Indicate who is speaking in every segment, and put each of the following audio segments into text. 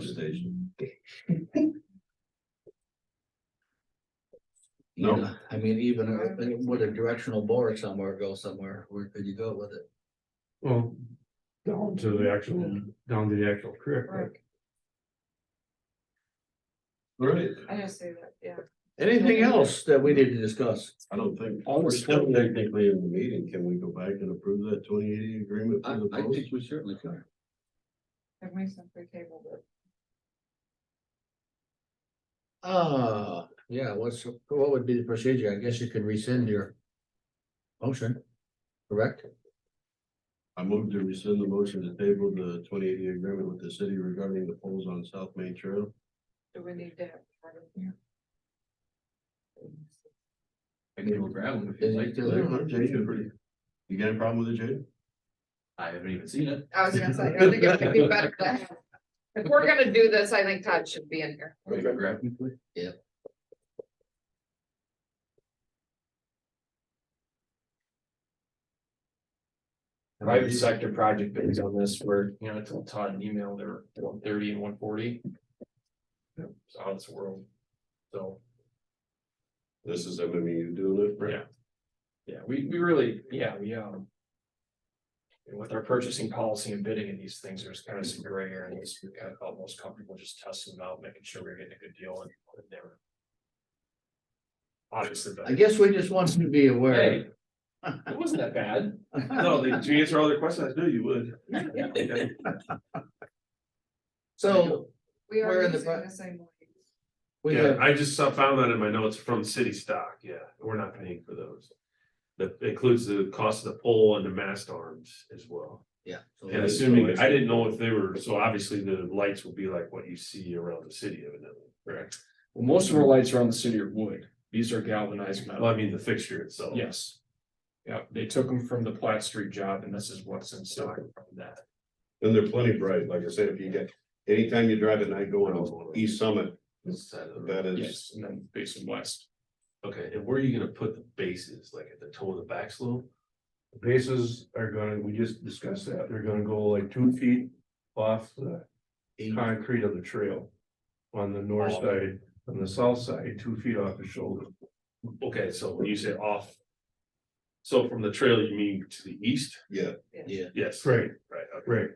Speaker 1: station.
Speaker 2: You
Speaker 1: No.
Speaker 2: know, I mean, even if- with a directional bore somewhere, go somewhere, where could you go with it?
Speaker 3: Well, down to the actual, down to the actual creek.
Speaker 4: Right.
Speaker 1: Right,
Speaker 4: I just say that, yeah.
Speaker 2: Anything else that we need to discuss?
Speaker 1: I don't think,
Speaker 5: All the
Speaker 1: we're still
Speaker 5: stuff-
Speaker 1: technically in the meeting, can we go back and approve that twenty eighty agreement
Speaker 2: I,
Speaker 1: for the
Speaker 2: I
Speaker 1: post?
Speaker 2: think we certainly can.
Speaker 4: It makes them free table, but
Speaker 2: Ah, yeah, what's, what would be the procedure? I guess you could rescind your motion, correct?
Speaker 1: I move to rescind the motion to table the twenty eighty agreement with the city regarding the poles on South Main Trail.
Speaker 4: do we need to have? part of it?
Speaker 5: I can go grab them if you'd
Speaker 2: Is it
Speaker 5: like
Speaker 2: still-
Speaker 5: to.
Speaker 1: You got a problem with it, Jay?
Speaker 5: I haven't even seen it.
Speaker 4: I was gonna say, I think it would be better to have. If we're gonna do this, I think Todd should be in here.
Speaker 5: Can you grab them, please?
Speaker 6: private sector project bids on this were, you know, I told Todd an email, they were one thirty and one forty. It's out of this world. So,
Speaker 1: This is MMU doing it, right?
Speaker 6: yeah. Yeah, we, we really, yeah, we, um. and With our purchasing policy and bidding and these things, there's kind of some gray areas, we kind of felt most comfortable just testing them out, making sure we we're getting a good deal and they were. Obviously,
Speaker 2: I
Speaker 6: but
Speaker 2: guess we just want you to be aware.
Speaker 6: hey. It wasn't that bad.
Speaker 5: No, they, to answer all their questions, I knew you would.
Speaker 2: So
Speaker 4: We
Speaker 2: We're
Speaker 4: are
Speaker 2: in the
Speaker 4: using
Speaker 2: front.
Speaker 4: the same. one.
Speaker 2: we
Speaker 3: Yeah,
Speaker 2: have,
Speaker 3: I just saw- found that in my notes from city stock, yeah, we're not paying for those. That includes the cost of the pole and the mast arms as well.
Speaker 2: yeah. so
Speaker 3: And assuming, I didn't know if they were, so obviously the lights will be like what you see around the city evidently, correct?
Speaker 6: Well, most of our lights around the city are wood. These are galvanized metal.
Speaker 3: Well, I mean, the fixture itself.
Speaker 6: Yes. Yeah, they took them from the Platt Street job and this is what's in stock from that.
Speaker 1: And they're plenty bright, like I said, if you get, anytime you drive at night going on East Summit,
Speaker 3: This side of the-
Speaker 1: that is,
Speaker 6: Yes, and then based in west.
Speaker 3: Okay, and where are you gonna put the bases, like at the toe of the back slope?
Speaker 7: Bases are gonna, we just discussed that, they're gonna go like two feet off the concrete of the trail. On the north side, on the south side, two feet off the shoulder.
Speaker 3: Okay, so when you say off. So from the trail, you mean to the east?
Speaker 1: yeah.
Speaker 2: Yeah.
Speaker 3: Yes.
Speaker 7: Right,
Speaker 3: Right, okay.
Speaker 7: right.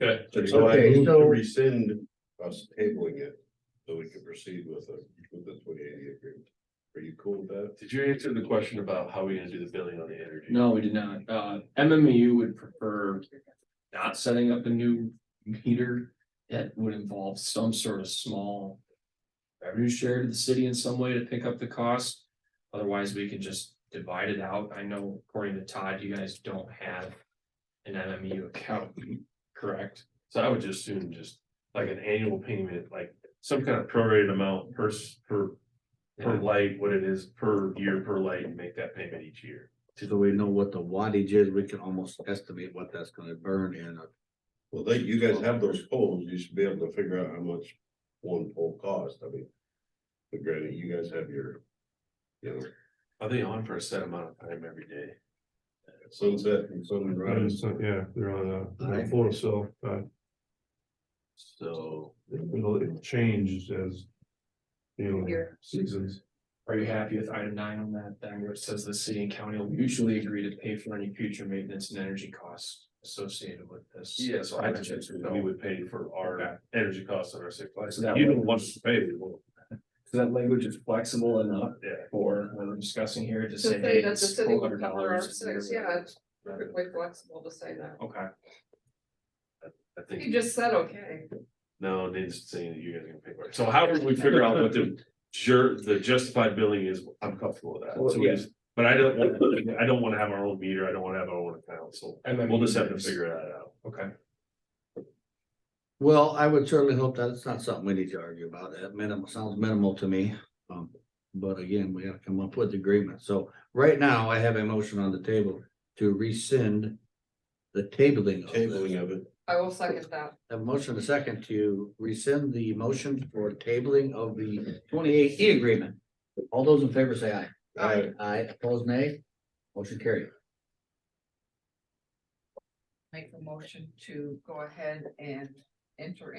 Speaker 3: Good.
Speaker 1: So I
Speaker 2: Okay,
Speaker 1: move to
Speaker 2: so-
Speaker 1: rescind us tabling it, so we can proceed with the, with the twenty eighty agreement. Are you cool with that?
Speaker 3: Did you answer the question about how we gonna do the billing on the energy?
Speaker 6: No, we did not. Uh, MMU would prefer not setting up a new meter. That would involve some sort of small revenue share to the city in some way to pick up the cost. Otherwise, we can just divide it out. I know according to Todd, you guys don't have an MMU account, correct?
Speaker 3: So I would just assume just like an annual payment, like some kind of prorated amount per, s- per. Per
Speaker 6: Yeah.
Speaker 3: light, what it is per year per light and make that payment each year.
Speaker 2: So that we know what the wattage is, we can almost estimate what that's gonna burn in a
Speaker 1: Well, they, you guys have those poles, you should be able to figure out how much one pole costs, I mean. But granted, you guys have your, you know,
Speaker 3: Are they on for a set amount of time every day?
Speaker 1: sunset and
Speaker 7: Right,
Speaker 1: sunrise,
Speaker 7: so, uh, yeah, they're on a, on a
Speaker 2: Right.
Speaker 7: photo cell, uh,
Speaker 1: Mm-hmm. so.
Speaker 7: it'll, it changes as. You know,
Speaker 4: Here.
Speaker 7: seasons,
Speaker 6: Are you happy with item nine on that, then where it says the city and county will mutually agree to pay for any future maintenance and energy costs associated with this?
Speaker 3: Yeah, so I just, assumed that we would pay for our energy costs on our sick lights.
Speaker 6: So that
Speaker 3: You
Speaker 6: way-
Speaker 3: don't want us to pay, we won't.
Speaker 6: So that language is flexible enough
Speaker 3: yeah.
Speaker 6: for what we're discussing here to
Speaker 4: To
Speaker 6: say.
Speaker 4: say
Speaker 6: hey,
Speaker 4: that the
Speaker 6: it's
Speaker 4: city will
Speaker 6: $1,200
Speaker 4: cover our
Speaker 6: a year,
Speaker 4: six, yeah.
Speaker 6: whatever.
Speaker 4: Perfectly flexible to say that.
Speaker 6: Okay,
Speaker 3: I
Speaker 4: You
Speaker 3: think,
Speaker 4: just said, okay.
Speaker 3: no, they just saying that you guys are gonna pay for it. So how do we figure out what the jur, the justified billing is? I'm comfortable with that.
Speaker 6: Well,
Speaker 3: So we
Speaker 6: yeah.
Speaker 3: just- But I don't, want- I don't wanna have our own meter. I don't wanna have our own account, so
Speaker 6: and then
Speaker 3: we'll just have to figure that out.
Speaker 6: Okay,
Speaker 2: Well, I would certainly hope that it's not something we need to argue about. That minimal, sounds minimal to me. Um, but again, we have to come up with agreement. So right now I have a motion on the table to rescind the tabling of
Speaker 1: Tabling
Speaker 2: this.
Speaker 1: of it,
Speaker 4: I will second that.
Speaker 2: A motion and a second to rescind the motion for tabling of the twenty-eight E agreement. All those in favor say aye.
Speaker 1: Aye.
Speaker 2: Aye, opposed nay. Motion carried.
Speaker 4: Make the motion to go ahead and enter